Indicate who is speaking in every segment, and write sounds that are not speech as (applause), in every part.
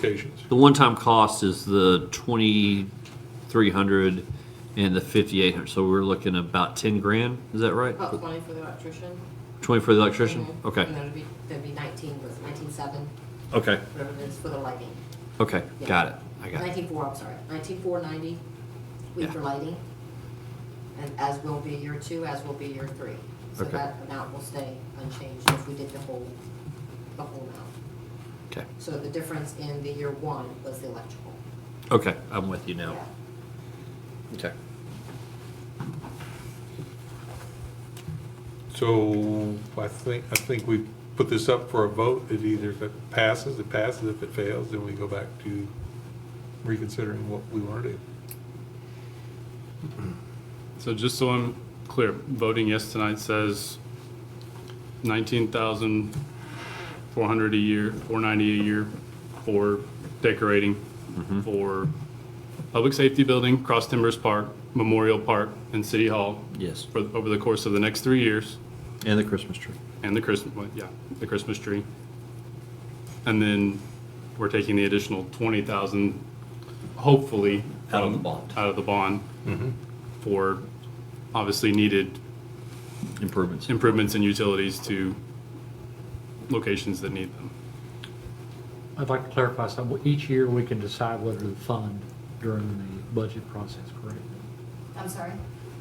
Speaker 1: locations.
Speaker 2: The one-time cost is the twenty-three hundred and the fifty-eight hundred, so we're looking about ten grand, is that right?
Speaker 3: About twenty for the electrician.
Speaker 2: Twenty for the electrician?
Speaker 3: Mhm.
Speaker 2: Okay,
Speaker 3: And that'd be, that'd be nineteen, was it nineteen seven,
Speaker 2: okay,
Speaker 3: whatever it is for the lighting.
Speaker 2: okay, got it, I got it.
Speaker 3: Nineteen four, I'm sorry, nineteen four ninety, week
Speaker 2: Yeah.
Speaker 3: for lighting. And as will be year two, as will be year three. So
Speaker 2: Okay.
Speaker 3: that amount will stay unchanged if we did the whole, the whole amount.
Speaker 2: Okay,
Speaker 3: So the difference in the year one was the electrical.
Speaker 2: okay, I'm with you now.
Speaker 3: Yeah.
Speaker 2: Okay.
Speaker 1: So I think, I think we put this up for a vote. It either, if it passes, it passes. If it fails, then we go back to reconsidering what we want to do.
Speaker 4: So just so I'm clear, voting yes tonight says nineteen thousand four hundred a year, four ninety a year for decorating, for public safety building, Cross Timbers Park, Memorial Park, and City Hall
Speaker 2: Yes,
Speaker 4: for, over the course of the next three years,
Speaker 2: and the Christmas tree.
Speaker 4: and the Christmas, yeah, the Christmas tree. And then we're taking the additional twenty thousand, hopefully.
Speaker 2: Out of the
Speaker 4: from-
Speaker 2: bond.
Speaker 4: Out of the bond for obviously needed
Speaker 2: Improvements.
Speaker 4: improvements in utilities to locations that need them.
Speaker 5: I'd like to clarify something. Each year, we can decide whether to fund during the budget process, correct?
Speaker 3: I'm sorry?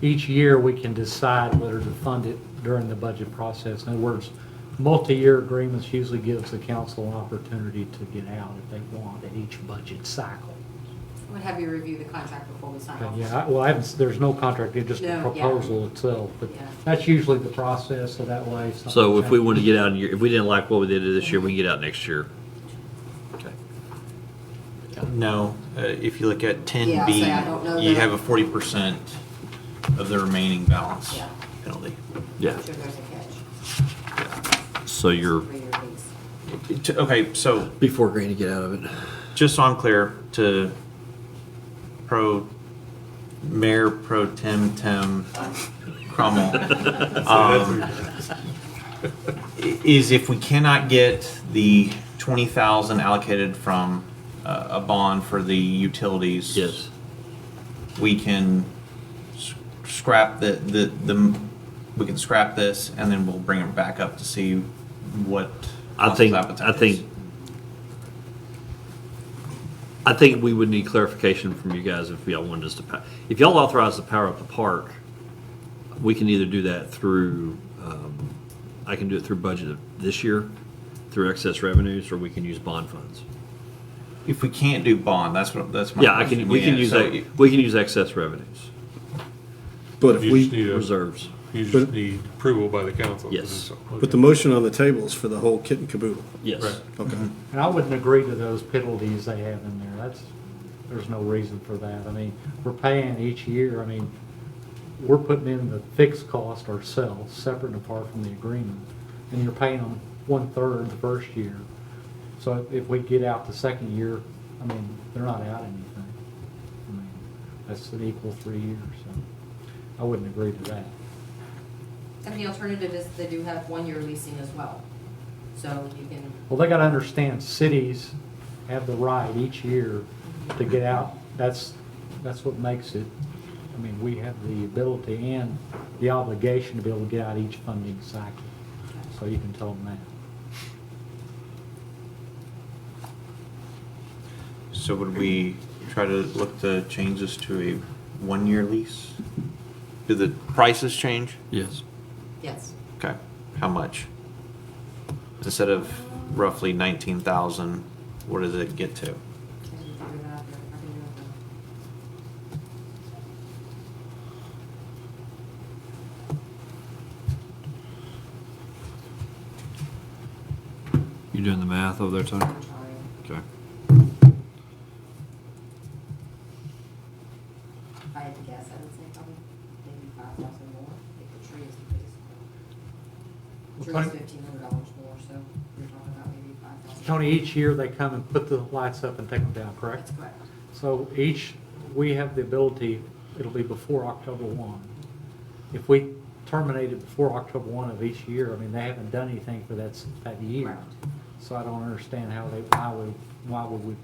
Speaker 5: Each year, we can decide whether to fund it during the budget process. In other words, multi-year agreements usually gives the council an opportunity to get out if they want at each budget cycle.
Speaker 3: I would have you review the contract before we sign off.
Speaker 5: And yeah, I- well, I haven't, there's no contract, it's just
Speaker 3: No,
Speaker 5: a
Speaker 3: yeah.
Speaker 5: proposal itself, but
Speaker 3: Yeah.
Speaker 5: that's usually the process, so that way. something
Speaker 2: So if we
Speaker 5: changes.
Speaker 2: want to get out, in year- if we didn't like what we did this year, we can get out next year. Okay.
Speaker 6: No, uh, if you look at
Speaker 3: Yeah,
Speaker 6: ten
Speaker 3: I'll
Speaker 6: B,
Speaker 3: say I don't know
Speaker 6: you
Speaker 3: that.
Speaker 6: have a forty percent of the remaining balance
Speaker 3: Yeah.
Speaker 6: penalty.
Speaker 2: Yeah,
Speaker 3: I'm sure there's a catch.
Speaker 2: so you're
Speaker 3: Three-year lease.
Speaker 6: To- Okay, so
Speaker 2: before grand to get out of it.
Speaker 6: just so I'm clear, to pro, Mayor Pro Tem Tem Cromwell,
Speaker 2: (laughs)
Speaker 6: i- is if we cannot get the twenty thousand allocated from uh, a bond for the utilities.
Speaker 2: Yes,
Speaker 6: we can s- scrap the, the, the, we can scrap this and then we'll bring it back up to see what.
Speaker 2: I think,
Speaker 6: council's
Speaker 2: I
Speaker 6: appetite
Speaker 2: think, I think we would need clarification from you guys if y'all wanted us to, pa- if y'all authorize the power up the park, we can either do that through, um, I can do it through budget this year, through excess revenues, or we can use bond funds.
Speaker 6: is. If we can't do bond, that's what, that's my.
Speaker 2: Yeah, I can,
Speaker 6: question.
Speaker 2: we can
Speaker 6: Yeah,
Speaker 2: use,
Speaker 6: so
Speaker 2: that. we can use excess revenues,
Speaker 7: But if
Speaker 1: You just
Speaker 7: we,
Speaker 1: need a,
Speaker 2: reserves.
Speaker 1: you just need approval by the council. to do
Speaker 2: Yes.
Speaker 1: so.
Speaker 7: but the motion on the table is for the whole kit and caboodle.
Speaker 2: Yes.
Speaker 1: Right.
Speaker 7: Okay.
Speaker 5: And I wouldn't agree to those penalties they have in there. That's, there's no reason for that. I mean, we're paying each year, I mean, we're putting in the fixed cost ourselves, separate and apart from the agreement. And you're paying them one-third the first year. So if we get out the second year, I mean, they're not out anything. I mean, that's an equal three years, so I wouldn't agree to that.
Speaker 3: And the alternative is they do have one-year leasing as well. So you can,
Speaker 5: Well, they gotta understand, cities have the right each year to get out. That's, that's what makes it, I mean, we have the ability and the obligation to be able to get out each funding cycle. So you can tell them that.
Speaker 6: So would we try to look to change this to a one-year lease? Do the prices change?
Speaker 2: Yes.
Speaker 3: yes.
Speaker 6: Okay, how much? Instead of roughly nineteen thousand, what does it get to?
Speaker 3: I can figure it out here. I can do it now.
Speaker 2: You doing the math over there, Tony?
Speaker 3: I'm sorry.
Speaker 2: Okay.
Speaker 3: If I had to guess, I would say probably maybe five thousand more, if the tree is the biggest one.
Speaker 5: Well,
Speaker 3: Tree is
Speaker 5: Tony-
Speaker 3: fifteen hundred dollars more, so you're talking about maybe five thousand.
Speaker 5: Tony, each year they come and put the lights up and take them down, correct?
Speaker 3: That's correct.
Speaker 5: So each, we have the ability, it'll be before October one. If we terminate it before October one of each year, I mean, they haven't done anything for that, s- that year.
Speaker 3: Correct.
Speaker 5: So I don't understand how they, why would, why would we